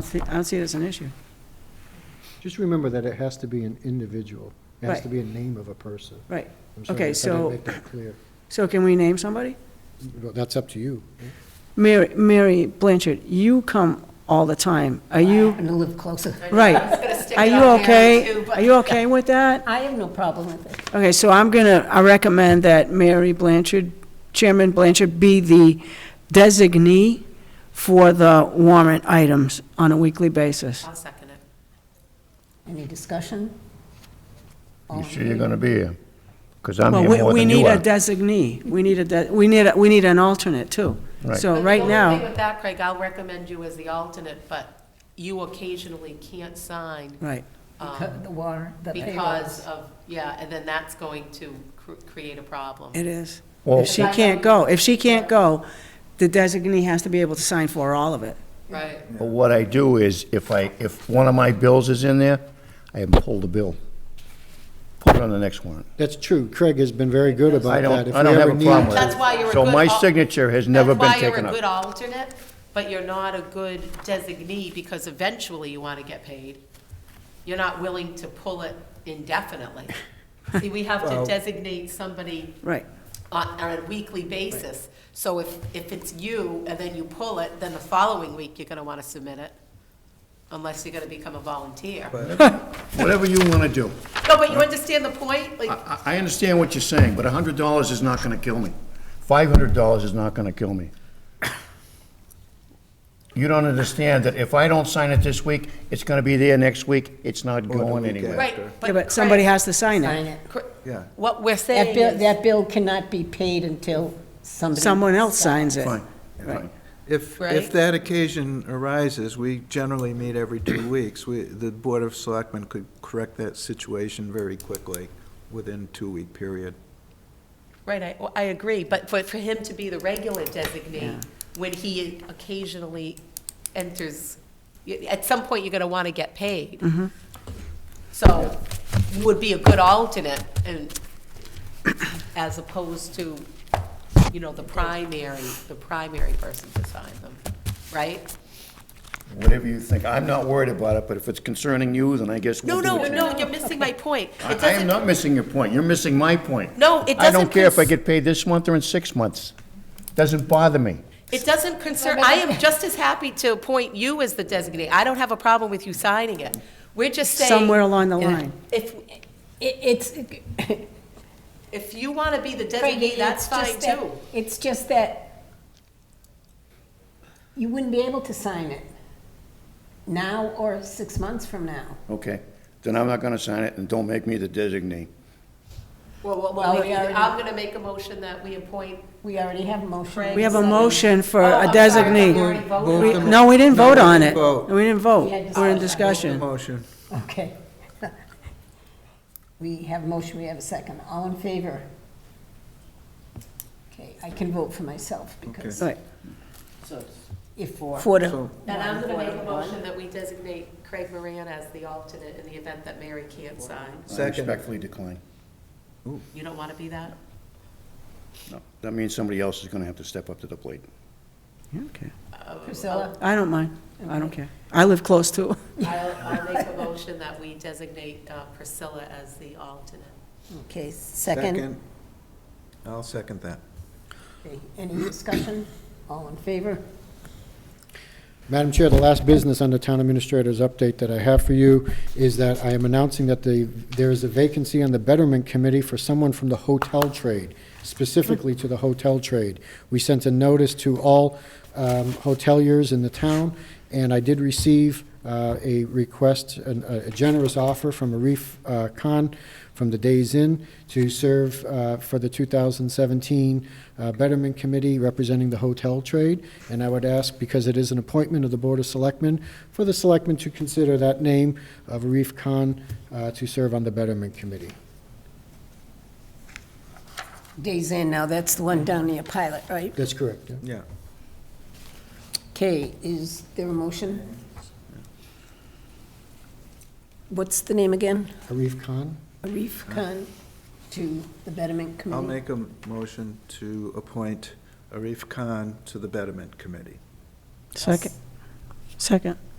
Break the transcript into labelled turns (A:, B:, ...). A: don't see- I don't see it as an issue.
B: Just remember that it has to be an individual. It has to
A: Right.
B: be a name of a person.
A: Right.
B: I'm sorry
A: Okay,
B: if I didn't
A: so-
B: make that clear.
A: So can we name somebody?
B: Well, That's up to you.
A: Mary, Mary Blanchard, you come all the time. Are you,
C: I'm going to live closer.
A: right?
D: stick
A: Are
D: it
A: you
D: on Mary,
A: okay?
D: too, but-
A: Are you okay with that?
C: I have no problem with it.
A: Okay, so I'm gonna, I recommend that Mary Blanchard, Chairman Blanchard, be the designee for the warrant items on a weekly basis.
D: I'll second it.
C: Any discussion?
E: You sure you're gonna be here? Because I'm
A: Well,
E: here
A: we,
E: more
A: we
E: than you
A: need a
E: are.
A: designee. We need a, de- we need, a- we need an alternate too.
E: Right.
A: So
D: But
A: Oh, right
D: The only thing
A: now,
D: with that, Craig, I'll recommend you as the alternate, but you occasionally can't sign
A: right.
D: um,
C: The warrant, the payroll.
D: because of, yeah, and then that's going to cr- create a problem.
A: It is.
E: Well-
A: If she can't go, if she can't go, the designee has to be able to sign for all of it.
D: Right.
E: But what I do is, if I, if one of my bills is in there, I have them pull the bill. Put it on the next warrant.
B: That's true. Craig has been very good
E: I
B: about that.
E: don't,
B: If
E: I
B: we
E: don't have
B: ever
E: a
B: need-
E: problem with it.
D: That's why you're a
E: So
D: good
E: my
D: al-
E: signature has never been
D: That's why
E: taken
D: you're a good
E: up.
D: alternate, but you're not a good designee because eventually you want to get paid. You're not willing to pull it indefinitely. See, we have to designate somebody
A: Right.
D: on, on a weekly basis. So if, if it's you and then you pull it, then the following week you're gonna wanna submit it, unless you're gonna become a volunteer.
E: Whatever you wanna do.
D: No, but you understand the point? Like,
E: I, I I understand what you're saying, but hundred dollars is not gonna kill me. Five hundred dollars is not gonna kill me. You don't understand that if I don't sign it this week, it's gonna be there next week, it's not going anywhere.
D: right,
A: Yeah,
D: but.
A: but somebody
D: Craig,
A: has to sign
C: Sign
A: it.
C: it.
D: Cr- What we're
C: That
D: saying
C: bill,
D: is,
C: that bill cannot be paid until somebody.
A: Someone else signs it.
E: Fine, fine.
F: If,
D: Right.
F: if that occasion arises, we generally meet every two weeks. We, the Board of Selectmen could correct that situation very quickly, within two-week period.
D: right, I, well, I agree, but for, for him to be the regular designee, when he occasionally enters, y- at some point you're gonna wanna get paid. So, you would be a good alternate and, as opposed to, you know, the primary, the primary person to sign them, right?
E: Whatever you think, I'm not worried about it, but if it's concerning you, then I guess we'll
D: No,
E: do
D: no,
E: what you-
D: no, you're missing my point. It
E: I, I am
D: doesn't-
E: not missing your point, you're missing my point.
D: No, it
E: I
D: doesn't
E: don't care if I
D: cons-
E: get paid this month or in six months, doesn't bother me.
D: It doesn't concern, I am just as happy to appoint you as the designee. I don't have a problem with you signing it. We're just saying.
A: Somewhere along the line.
D: If,
C: It, it's.
D: if you want to be the
C: Craig,
D: designee, that's
C: it's
D: fine
C: just that-
D: too.
C: It's just that you wouldn't be able to sign it now or six months from now.
E: Okay, then I'm not gonna sign it, and don't make me the designee.
D: Well, well,
C: Well,
D: well,
C: we
D: maybe-
C: already-
D: I'm going to make a motion that we appoint.
C: We already have a motion.
A: We have a
C: Second.
A: motion for
D: Oh,
A: a
D: I'm sorry, I thought we
A: designee.
D: already voted
A: We-
D: on it.
A: No, we didn't
F: No,
A: vote
F: we
A: on it.
F: didn't vote.
A: We didn't
C: We
A: vote.
C: had
A: We're in
C: discussion.
A: discussion.
F: Motion.
C: Okay. We have a motion, we have a second. All in favor? Okay, I can vote for myself because
A: Right.
C: if four.
A: For the-
F: So-
D: And I'm going to make a motion that we designate Craig Moran as the alternate in the event that Mary can't sign.
E: I
F: Second.
E: respectfully decline.
D: You don't want to be that?
E: No, that means somebody else is gonna have to step up to the plate.
A: Okay.
C: Priscilla,
A: I don't mind. I don't care. I live close to.
D: I'll, I'll make a motion that we designate uh, Priscilla as the alternate.
C: okay, second.
F: I'll second that.
C: Okay, Any discussion? All in favor?
B: Madam Chair, the last business under Town Administrator's update that I have for you is that I am announcing that the, there is a vacancy on the Betterment Committee for someone from the hotel trade, specifically to the hotel trade. We sent a notice to all um, hoteliers in the town, and I did receive uh, a request, an- a generous offer from Arif uh, Khan from the Days Inn to serve uh, for the 2017 uh, Betterment Committee representing the hotel trade. And I would ask, because it is an appointment of the Board of Selectmen, for the Selectmen to consider that name of Arif Khan uh, to serve on the Betterment Committee.
C: Days in now, that's the one down near Pilot, right?
B: That's correct, yeah?
F: Yeah.
C: Okay, is there a motion? What's the name again?
B: Arif Khan?
C: Arif Khan to the Betterment Committee?
F: I'll make a motion to appoint Arif Khan to the Betterment Committee.
A: Second. Second.